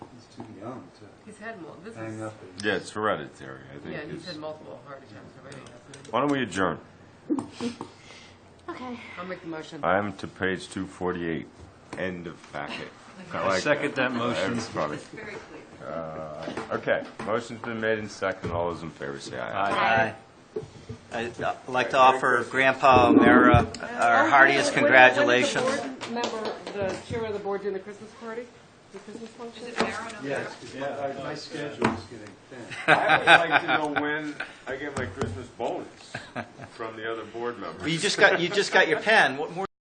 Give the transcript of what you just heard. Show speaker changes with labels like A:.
A: young to
B: He's had mul, this
A: hang
B: is,
A: up and
C: Yeah, it's hereditary, I think.
B: yeah, he's
C: it's-
B: had multiple heart attacks already, hasn't he?
C: Why don't we adjourn?
D: Okay.
B: I'll make the motion.
C: I am to page 248, end of packet. I
E: I
C: like
E: second that motion.
C: That's funny. Uh,
B: Very clear.
C: Okay, motion's been made and second. All those in favor say aye.
E: Aye.
F: I'd like to offer Grandpa O'Meara our heartiest congratulations.
B: When is the board member, the chair of the board doing the Christmas party, the Christmas function?
A: Yes, because my, my schedule's getting thin.
C: I would like to know when I get my Christmas bonus from the other board members.
F: You just got, you just got your pen. What more